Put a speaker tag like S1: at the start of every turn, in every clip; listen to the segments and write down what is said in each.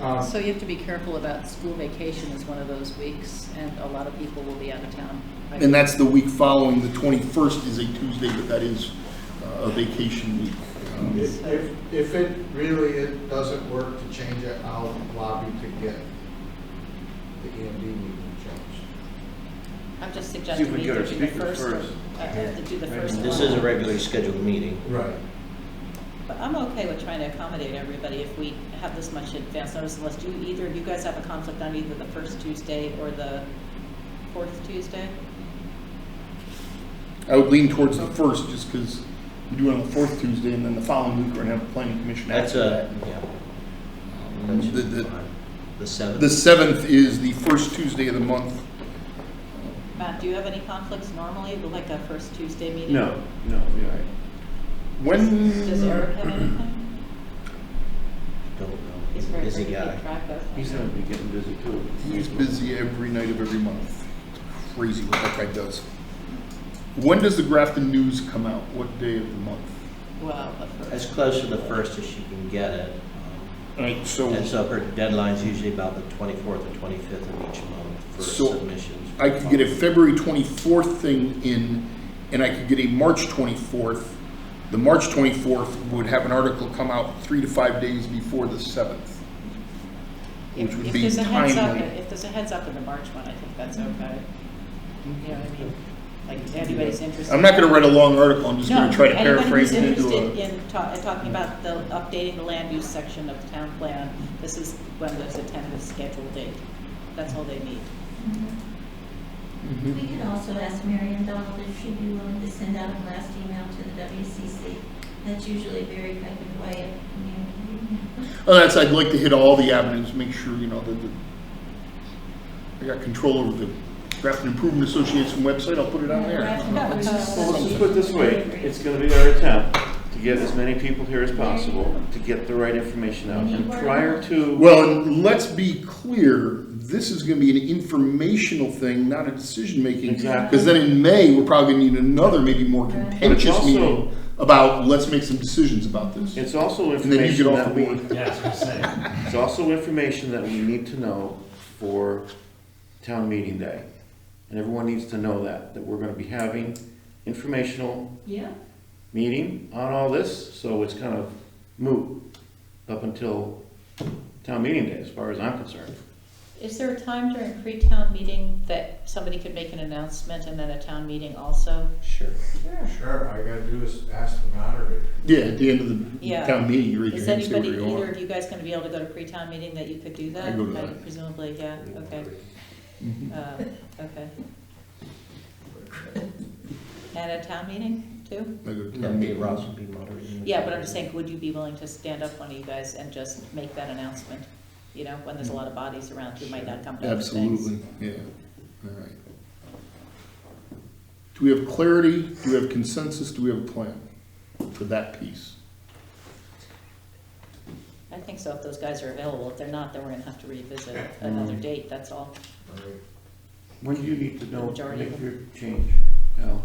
S1: Um,
S2: So you have to be careful about school vacation is one of those weeks, and a lot of people will be out of town.
S3: And that's the week following, the 21st is a Tuesday, but that is uh, a vacation week. Um,
S1: If, if- if it really, it doesn't work to change it, I'll lobby to get the EMD meeting changed.
S2: I'm just suggesting
S4: would
S2: we
S4: go
S2: either
S4: to
S2: do the
S4: speaker
S2: first,
S4: first.
S2: uh, uh, to do the
S1: Right.
S2: first one.
S5: This is a regularly scheduled meeting.
S1: Right.
S2: But I'm okay with trying to accommodate everybody if we have this much advance notice, unless you, either of you guys have a conflict on either the first Tuesday or the fourth Tuesday?
S3: I would lean towards the first, just because we do it on the fourth Tuesday, and then the following week, we're going to have a planning commission
S5: That's uh,
S3: after
S5: a,
S3: that.
S5: yeah.
S3: Um,
S5: That should
S3: the-
S5: be
S3: the-
S5: fine. The
S3: The
S5: seventh.
S3: 7th is the first Tuesday of the month.
S2: Matt, do you have any conflicts normally, with like a first Tuesday meeting?
S4: No, no, you're right.
S3: When?
S2: Does Eric have anything?
S5: Don't know.
S2: He's
S5: He's a
S2: very hard to
S5: busy
S2: keep
S5: guy.
S2: track of.
S4: He's gonna be getting busy too.
S3: He's busy every night of every month. It's Crazy what that guy does. When does the Grafton News come out? What day of the month?
S2: Well, the first.
S5: As close to the first as you can get it.
S3: All right,
S5: Um, And
S3: so
S5: so her deadline's usually about the 24th or 25th of each month for
S3: So,
S5: submissions.
S3: I could get a February 24th thing in, and I could get a March 24th. The March 24th would have an article come out three to five days before the 7th.
S2: If
S3: which would
S2: if
S3: be
S2: there's a heads up,
S3: timely.
S2: If there's a heads up in the March one, I think that's okay. You know what I mean? Like, if anybody's interested.
S3: I'm not going to write a long article, I'm just going
S2: No,
S3: to try to paraphrase it into
S2: Anybody who's
S3: a.
S2: interested in ta- in talking about the, updating the land use section of the town plan, this is when there's a tentative scheduled date. That's all they need.
S6: We
S3: Mm-hmm.
S6: could also ask Marion Donald if she'd be willing to send out a blast email to the WCC. That's usually a very effective way of communicating.
S3: Oh, that's, I'd like to hit all the avenues, make sure, you know, that the, I got control over the Grafton Improvement Association website, I'll put it on there.
S4: Well, let's just put it this way, it's gonna be our attempt to get as many people here as possible, to get the right information out, and prior to.
S3: Well, and let's be clear, this is gonna be an informational thing, not a decision-making.
S4: Exactly.
S3: Because then in May, we're probably gonna need another, maybe more contentious
S4: also-
S3: meeting about, let's make some decisions about this.
S4: It's also
S3: And then you
S4: information
S3: get off
S4: that
S3: the
S4: we,
S3: board.
S7: Yes, we're saying.
S4: it's also information that we need to know for town meeting day. And everyone needs to know that, that we're gonna be having informational
S6: Yeah,
S4: meeting on all this, so it's kind of moot up until town meeting day, as far as I'm concerned.
S2: Is there a time during pre-town meeting that somebody could make an announcement and then a town meeting also?
S5: Sure.
S6: sure.
S1: Sure, all I gotta do is ask the moderator.
S3: Yeah, at the end of the
S2: Yeah.
S3: town meeting, you raise your
S2: Is
S3: hand, and say
S2: anybody,
S3: whatever you
S2: either
S3: want.
S2: of you guys gonna be able to go to pre-town meeting that you could do that?
S3: I go to that.
S2: Uh, Presumably, yeah, okay. Uh, Okay. At a town meeting, too?
S3: I go to
S5: Yeah,
S3: town
S5: Dave
S3: meeting.
S5: Ross would be moderating.
S2: Yeah, but I'm just saying, would you be willing to stand up, one of you guys, and just make that announcement? You know, when there's a lot of bodies around who might not come to other things.
S3: Absolutely, yeah, all right. Do we have clarity, do we have consensus, do we have a plan for that piece?
S2: I think so, if those guys are available. If they're not, then we're gonna have to revisit another date, that's all.
S1: All right.
S4: When do you need to know, to
S2: Majority of
S4: make your change, Al?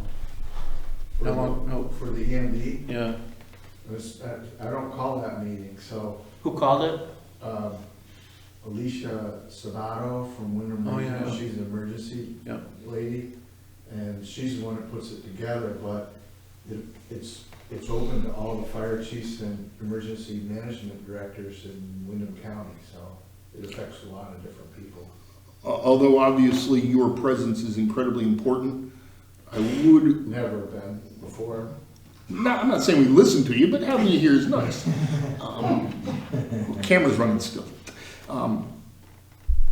S4: How long, no,
S1: For the E EMD,
S4: yeah,
S1: this- uh, I I don't call that meeting, so
S5: Who called it?
S1: um, Alicia Savato from Winter
S4: Oh, yeah,
S1: Regional,
S4: yeah.
S1: she's an emergency
S4: yeah,
S1: lady, and she's the one that puts it together, but it- it's, it's open to all the fire chiefs and emergency management directors in Wyndham County, so it affects a lot of different people.
S3: Al- Although obviously your presence is incredibly important, I would,
S1: Never been before.
S3: not, I'm not saying we listen to you, but having you here is nice. Um, Camera's running still. Um,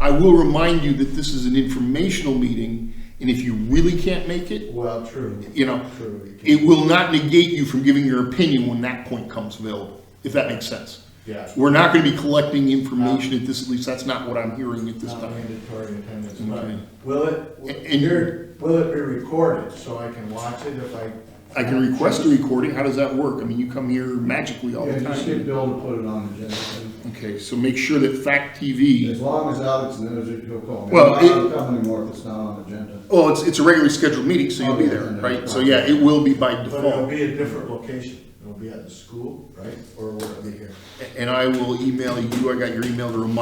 S3: I will remind you that this is an informational meeting, and if you really can't make it,
S1: Well, true.
S3: you know,
S1: True. you
S3: it
S1: can-
S3: will not negate you from giving your opinion when that point comes available, if that makes sense.
S1: Yeah.
S3: We're not gonna be collecting information at this, at least that's not what I'm hearing at this
S1: Not
S3: time.
S1: mandatory attendance,
S3: Okay.
S1: but will it,
S3: And- and you're-
S1: will it be recorded so I can watch it if I?
S3: I can request a recording, how does that work? I mean, you come here magically all
S1: Yeah,
S3: the
S1: you should
S3: time.
S1: be able to put it on the agenda.
S3: Okay, so make sure that Fact TV,
S8: As long as Alex knows it, he'll call me.
S3: Well,
S8: I don't
S3: it-
S8: come anymore if it's not on the agenda.
S3: oh, it's, it's a regularly scheduled meeting, so you'll be there, right? So yeah, it will be by
S1: But uh, it'll
S3: default.
S1: be a different location. It'll be at the school, right? Or will it be here?
S3: And I will email you, I got your email to remind